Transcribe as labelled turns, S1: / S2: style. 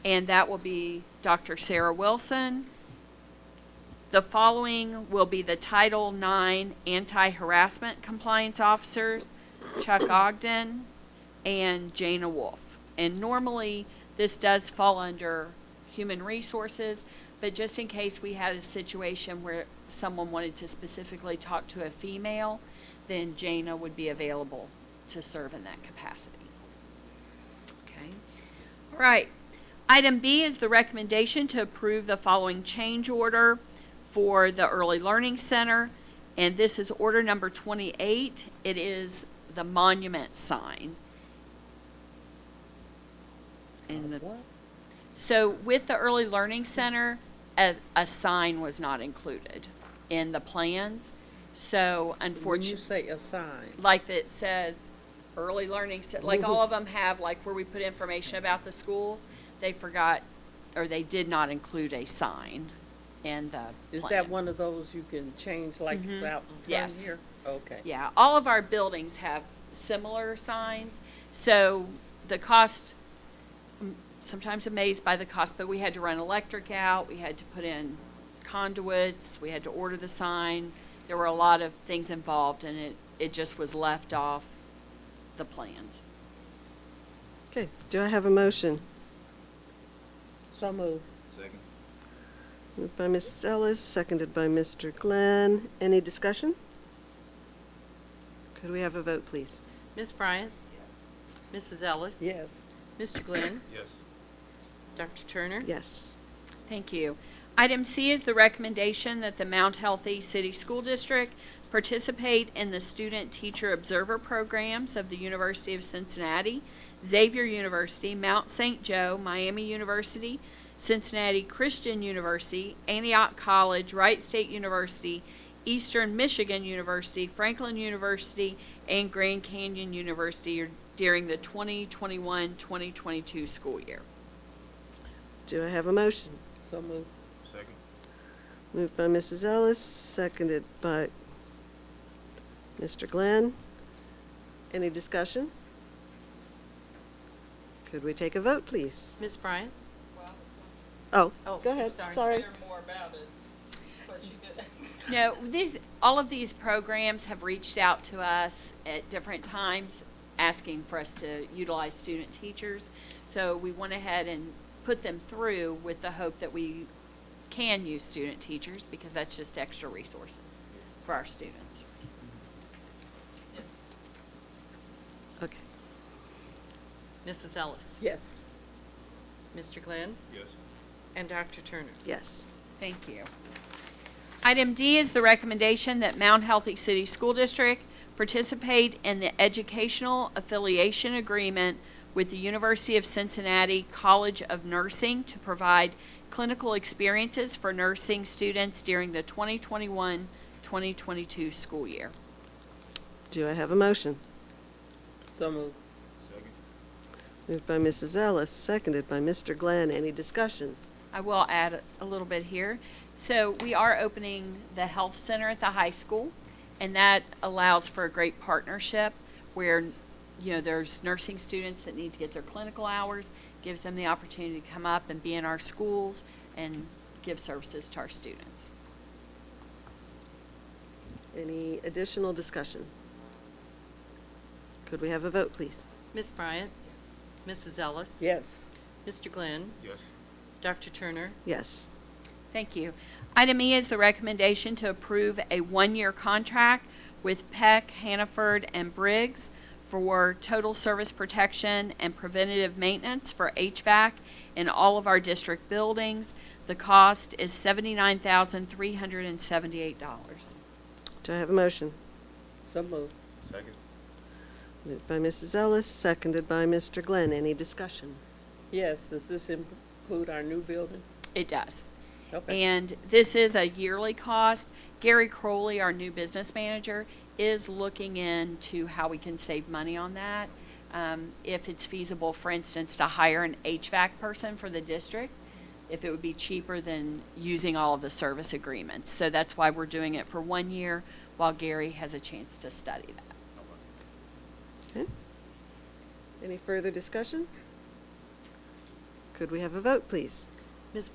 S1: and that will be Dr. Sarah Wilson. The following will be the Title IX Anti-Harassment Compliance Officers, Chuck Ogden and Jana Wolf. And normally, this does fall under Human Resources, but just in case we had a situation where someone wanted to specifically talk to a female, then Jana would be available to serve in that capacity. Okay? All right. Item B is the recommendation to approve the following change order for the Early Learning Center. And this is order number 28. It is the monument sign. And the, so with the Early Learning Center, a, a sign was not included in the plans. So
S2: When you
S1: unfortunately
S2: say a sign,
S1: like that says early learning, se- like
S2: Mm-hmm.
S1: all of them have, like where we put information about the schools, they forgot, or they did not include a sign in the
S2: is
S1: plan. Mm-hmm.
S2: that one of those you can change like it's out in front
S1: Yes.
S2: here? Okay.
S1: Yeah, all of our buildings have similar signs, so the cost, I'm sometimes amazed by the cost, but we had to run electric out, we had to put in conduits, we had to order the sign. There were a lot of things involved, and it, it just was left off the plans.
S3: Okay, do I have a motion?
S2: So moved.
S4: Second.
S3: Moved by Mrs. Ellis, seconded by Mr. Glenn. Any discussion? Could we have a vote, please?
S5: Ms. Bryant? Yes. Mrs. Ellis?
S2: Yes.
S5: Mr. Glenn?
S4: Yes.
S5: Dr. Turner?
S3: Yes.
S1: Thank you. Item C is the recommendation that the Mount Healthy City School District participate in the Student Teacher Observer Programs of the University of Cincinnati, Xavier University, Mount St. Joe, Miami University, Cincinnati Christian University, Antioch College, Wright State University, Eastern Michigan University, Franklin University, and Grand Canyon University during the 2021-2022 school year.
S3: Do I have a motion?
S2: So moved.
S4: Second.
S3: Moved by Mrs. Ellis, seconded by Mr. Glenn. Any discussion? Could we take a vote, please?
S5: Ms. Bryant?
S3: Oh,
S5: Oh,
S3: go ahead,
S5: sorry.
S3: sorry.
S1: No, these, all of these programs have reached out to us at different times, asking for us to utilize student teachers. So we went ahead and put them through with the hope that we can use student teachers, because that's just extra resources for our students.
S3: Okay.
S5: Mrs. Ellis?
S2: Yes.
S5: Mr. Glenn?
S4: Yes.
S5: And Dr. Turner?
S3: Yes.
S1: Thank you. Item D is the recommendation that Mount Healthy City School District participate in the educational affiliation agreement with the University of Cincinnati College of Nursing to provide clinical experiences for nursing students during the 2021-2022 school year.
S3: Do I have a motion?
S2: So moved.
S4: Second.
S3: Moved by Mrs. Ellis, seconded by Mr. Glenn. Any discussion?
S1: I will add a- a little bit here. So we are opening the health center at the high school, and that allows for a great partnership where, you know, there's nursing students that need to get their clinical hours, gives them the opportunity to come up and be in our schools and give services to our students.
S3: Any additional discussion? Could we have a vote, please?
S5: Ms. Bryant? Mrs. Ellis?
S2: Yes.
S5: Mr. Glenn?
S4: Yes.
S5: Dr. Turner?
S3: Yes.
S1: Thank you. Item E is the recommendation to approve a one-year contract with Peck, Hannaford, and Briggs for total service protection and preventative maintenance for HVAC in all of our district buildings. The cost is seventy-nine thousand, three hundred and seventy-eight dollars.
S3: Do I have a motion?
S2: So moved.
S4: Second.
S3: Moved by Mrs. Ellis, seconded by Mr. Glenn. Any discussion?
S2: Yes. Does this include our new building?
S1: It does.
S2: Okay.
S1: And this is a yearly cost. Gary Crowley, our new business manager, is looking into how we can save money on that. Um, if it's feasible, for instance, to hire an HVAC person for the district, if it would be cheaper than using all of the service agreements. So that's why we're doing it for one year while Gary has a chance to study that.
S3: Okay. Any further discussion? Could we have a vote, please?